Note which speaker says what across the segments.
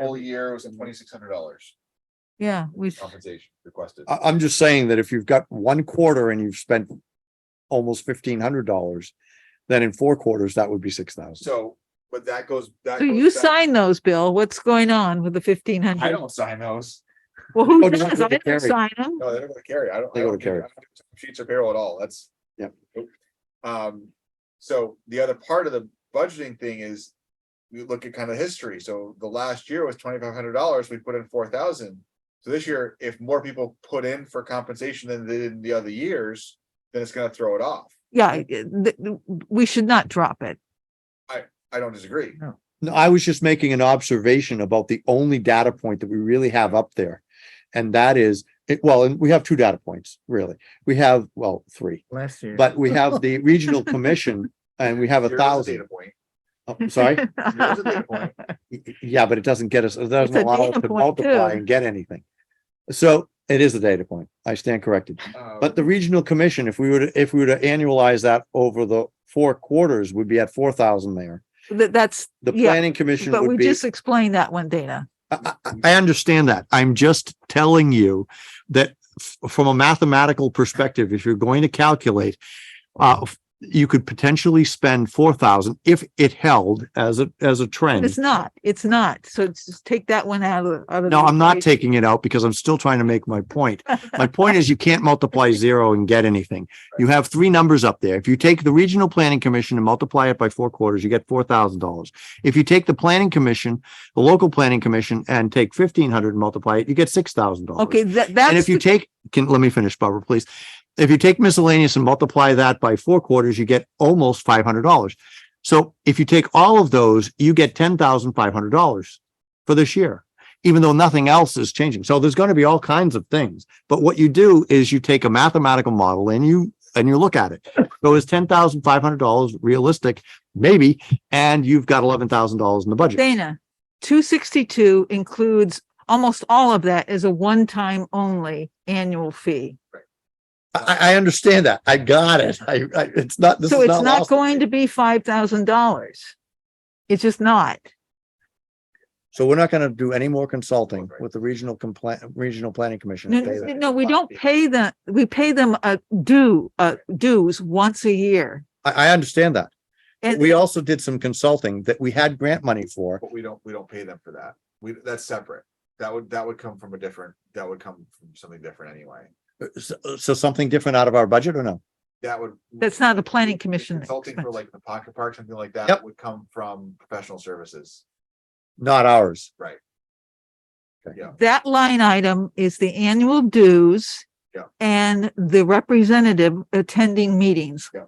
Speaker 1: whole year was at twenty-six hundred dollars
Speaker 2: Yeah, we,
Speaker 1: compensation requested.
Speaker 3: I, I'm just saying that if you've got one quarter and you've spent almost fifteen hundred dollars, then in four quarters, that would be six thousand.
Speaker 1: So, but that goes, that.
Speaker 2: so
Speaker 1: goes
Speaker 2: you
Speaker 1: back-
Speaker 2: sign those, Bill. What's going on with the fifteen
Speaker 1: I
Speaker 2: hundred?
Speaker 1: don't sign those.
Speaker 2: Well, who
Speaker 3: Oh, do you want
Speaker 2: does?
Speaker 3: me
Speaker 2: I
Speaker 3: to
Speaker 2: didn't
Speaker 3: carry?
Speaker 2: sign them.
Speaker 1: No, they don't go to carry. I don't.
Speaker 3: They
Speaker 1: I
Speaker 3: go
Speaker 1: don't
Speaker 3: to
Speaker 1: do- I
Speaker 3: carry.
Speaker 1: don't do Sheets or payroll at all. That's.
Speaker 3: Yep.
Speaker 1: Nope. Um, so the other part of the budgeting thing is. You look at kind of history. So the last year was twenty-five hundred dollars. We put in four thousand. So this year, if more people put in for compensation than they did in the other years, then it's gonna throw it off.
Speaker 2: Yeah, it- th- th- we should not drop it.
Speaker 1: I don't disagree.
Speaker 3: No, I was just making an observation about the only data point that we really have up there. And that is, it, well, and we have two data points, really. We have, well, three,
Speaker 4: Last year.
Speaker 3: but we have the regional commission and we have a
Speaker 1: Here is Data
Speaker 3: thousand.
Speaker 1: point.
Speaker 3: Oh, Sorry?
Speaker 1: Here is a data point.
Speaker 3: Y- y- Yeah, but it doesn't get us, it doesn't
Speaker 2: a
Speaker 3: allow us
Speaker 2: data
Speaker 3: to
Speaker 2: point,
Speaker 3: multiply
Speaker 2: too.
Speaker 3: and get anything. So it is a data point. I stand corrected.
Speaker 1: Um,
Speaker 3: But the regional commission, if we were to, if we were to annualize that over the four quarters, would be at four thousand there.
Speaker 2: That, that's,
Speaker 3: The
Speaker 2: Yeah,
Speaker 3: planning commission
Speaker 2: but
Speaker 3: would
Speaker 2: we
Speaker 3: be.
Speaker 2: just explained that one, Dana.
Speaker 3: I, I- I understand that. I'm just telling you that f- from a mathematical perspective, if you're going to calculate, uh, f- you could potentially spend four thousand if it held as a, as a
Speaker 2: But
Speaker 3: trend.
Speaker 2: It's not, it's not. So it's- just take that one out of. out of
Speaker 3: No,
Speaker 2: the
Speaker 3: I'm not
Speaker 2: equation.
Speaker 3: taking it out because I'm still trying to make my point. My point is you can't multiply zero and get anything. You have three numbers up there. If you take the Regional Planning Commission and multiply it by four quarters, you get four thousand dollars. If you take the Planning Commission, the local planning commission and take fifteen hundred and multiply it, you get six thousand dollars.
Speaker 2: Okay, that, that's.
Speaker 3: And if you
Speaker 2: the-
Speaker 3: take, can, let me finish, Barbara, please. If you take miscellaneous and multiply that by four quarters, you get almost five hundred dollars. So if you take all of those, you get ten thousand five hundred dollars for this year, even though nothing else is changing. So there's going to be all kinds of things. But what you do is you take a mathematical model and you, and you look at it. So is ten thousand five hundred dollars realistic? Maybe. And you've got eleven thousand dollars in the budget.
Speaker 2: Dana, two sixty-two includes almost all of that as a one-time only annual fee.
Speaker 3: I, I understand that. I got it. I, I, it's not, this
Speaker 2: So
Speaker 3: is
Speaker 2: it's
Speaker 3: not
Speaker 2: not
Speaker 3: lost.
Speaker 2: going to be five thousand dollars. It's just not.
Speaker 3: So we're not gonna do any more consulting
Speaker 1: Right.
Speaker 3: with the regional compla- regional planning commission.
Speaker 2: No,
Speaker 3: and pay them.
Speaker 2: no, we don't pay them, we pay them a due, uh, dues once a year.
Speaker 3: I, I understand that. But
Speaker 2: And-
Speaker 3: We also did some consulting that we had grant money for.
Speaker 1: But we don't, we don't pay them for that. We, that's separate. That would, that would come from a different, that would come from something different anyway.
Speaker 3: So, so something different out of our budget or no?
Speaker 1: That would.
Speaker 2: That's not a planning commission
Speaker 1: Consulting for
Speaker 2: expense.
Speaker 1: like the pocket park, something like that
Speaker 3: Yep.
Speaker 1: would come from professional services.
Speaker 3: Not ours.
Speaker 2: That line item is the annual dues.
Speaker 1: Yeah.
Speaker 2: And the representative attending meetings.
Speaker 1: Yeah.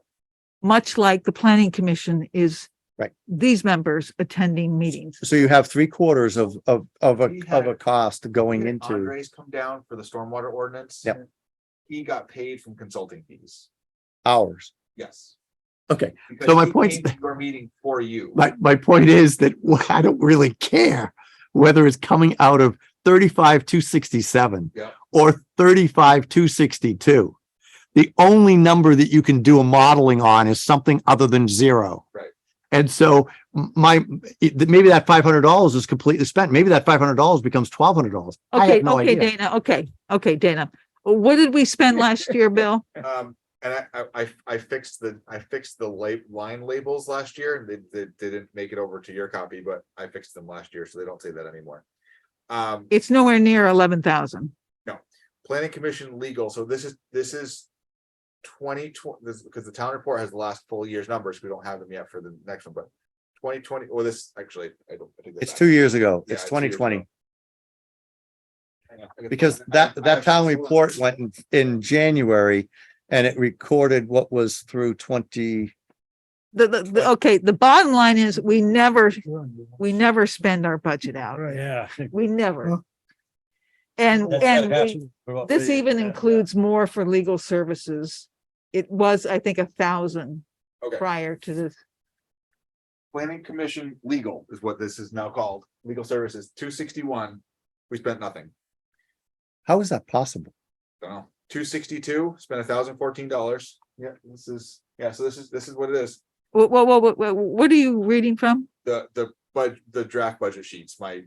Speaker 2: Much like the planning commission is.
Speaker 3: Right.
Speaker 2: These members attending meetings.
Speaker 3: So you have three quarters of, of, of a,
Speaker 1: We
Speaker 3: of
Speaker 1: had-
Speaker 3: a cost going
Speaker 1: Did
Speaker 3: into.
Speaker 1: Andres come down for the stormwater ordinance.
Speaker 3: Yep.
Speaker 1: He got paid from consulting fees.
Speaker 3: Ours.
Speaker 1: Yes.
Speaker 3: Okay,
Speaker 1: because
Speaker 3: So my
Speaker 1: he
Speaker 3: point's-
Speaker 1: came to Your meeting for you.
Speaker 3: my, my point is that I don't really care whether it's coming out of thirty-five, two sixty-seven
Speaker 1: Yeah.
Speaker 3: or thirty-five, two sixty-two. The only number that you can do a modeling on is something other than zero.
Speaker 1: Right.
Speaker 3: And so m- my, it- maybe that five hundred dollars is completely spent. Maybe that five hundred dollars becomes twelve hundred dollars. I
Speaker 2: Okay,
Speaker 3: have no
Speaker 2: okay,
Speaker 3: idea.
Speaker 2: Dana, okay, okay, Dana. What did we spend last year, Bill?
Speaker 1: Um, and I, I, I- I fixed the, I fixed the la- line labels last year, and they, they didn't make it over to your copy, but I fixed them last year, so they don't say that anymore. Um,
Speaker 2: It's nowhere near eleven thousand.
Speaker 1: planning commission legal, so this is, this is. Twenty twenty, this, because the town report has the last full year's numbers, we don't have them yet for the next one, but. Twenty twenty, or this, actually, I don't. I take that
Speaker 3: It's
Speaker 1: back.
Speaker 3: two years ago.
Speaker 1: Yeah,
Speaker 3: It's
Speaker 1: it's two
Speaker 3: twenty
Speaker 1: years
Speaker 3: twenty.
Speaker 1: ago. I know, I got-
Speaker 3: Because
Speaker 1: I- I-
Speaker 3: that,
Speaker 1: I
Speaker 3: that
Speaker 1: have
Speaker 3: town
Speaker 1: this one.
Speaker 3: report went in, in January and it recorded what was through twenty.
Speaker 2: The, the, the- okay, the bottom line is we never, we never spend our budget out.
Speaker 4: Yeah.
Speaker 2: We never. And, and we- this even
Speaker 3: uh,
Speaker 2: includes more for legal services. It was, I think, a thousand
Speaker 1: Okay.
Speaker 2: prior to this.
Speaker 1: Planning Commission Legal is what this is now called, legal services, two sixty-one, we spent nothing,
Speaker 3: How is that possible?
Speaker 1: don't know. Two sixty-two, spent thousand fourteen dollars, yeah, this is, yeah, so this is, this is what it is,
Speaker 2: Wha- wha- wha- wha- wha- what are you reading from?
Speaker 1: the, the, but the draft budget sheets, my